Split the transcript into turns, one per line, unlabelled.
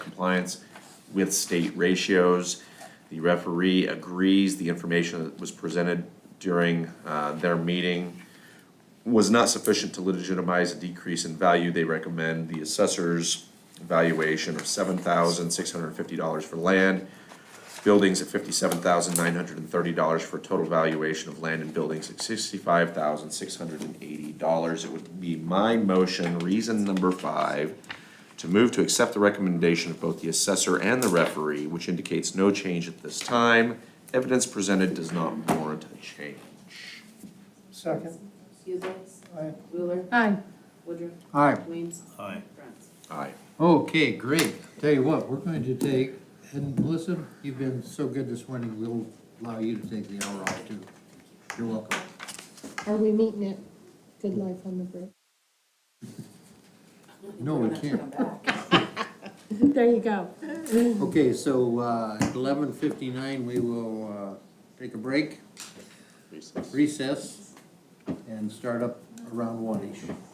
compliance with state ratios. The referee agrees the information that was presented during uh, their meeting was not sufficient to legitimize a decrease in value. They recommend the assessor's valuation of seven thousand six hundred and fifty dollars for land, buildings at fifty-seven thousand nine hundred and thirty dollars for a total valuation of land and buildings at sixty-five thousand six hundred and eighty dollars. It would be my motion, reason number five, to move to accept the recommendation of both the assessor and the referee, which indicates no change at this time. Evidence presented does not warrant a change.
Second.
Huzik,
Aye.
Wheeler,
Aye.
Woodruff,
Aye.
Weems,
Aye.
Brents.
Aye.
Okay, great. Tell you what, we're going to take, and Melissa, you've been so good this morning, we'll allow you to take the hour off too. You're welcome.
Are we meeting at Good Life on the Bridge?
No, we can't.
There you go.
Okay, so, uh, eleven fifty-nine, we will, uh, take a break, recess, and start up around one-ish.